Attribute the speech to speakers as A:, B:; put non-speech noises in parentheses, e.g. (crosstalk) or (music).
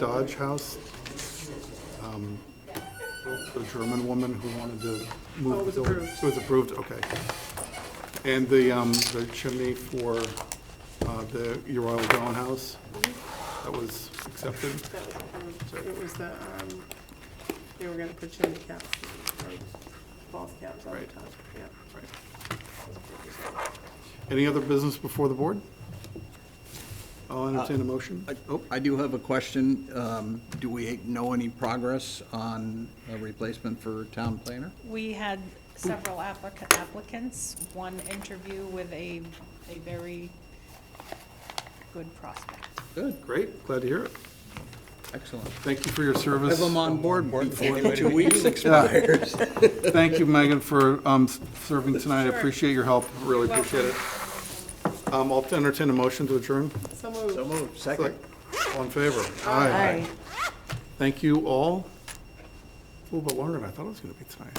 A: Dodge House, um, the German woman who wanted to move.
B: Oh, it was
A: the building.
B: approved.
A: It was approved, okay. And the, um, the chimney for, uh, the Your Royal Dawn House, that was accepted.
B: That was approved. It was the, um, they were gonna put chimney caps, or false caps on the
A: Right.
B: top, yeah.
A: Right. Any other business before the board? I'll entertain a motion.
C: I- oh, I do have a question. Um, Do we know any progress on a replacement for town planner?
D: We had several applica- applicants, one interview with a, a very good prospect.
C: Good,
A: Great, glad to hear it.
C: excellent.
A: Thank you for your service.
C: Have them on board before the two weeks expires.
A: Thank you, Megan, for um, serving tonight. I appreciate your help, really appreciate it. Um, I'll entertain a motion to adjourn.
B: So moved.
C: (laughs) So moved, second.
A: All in favor? Aye. Thank you all. A little bit longer than I thought it was going to be tonight.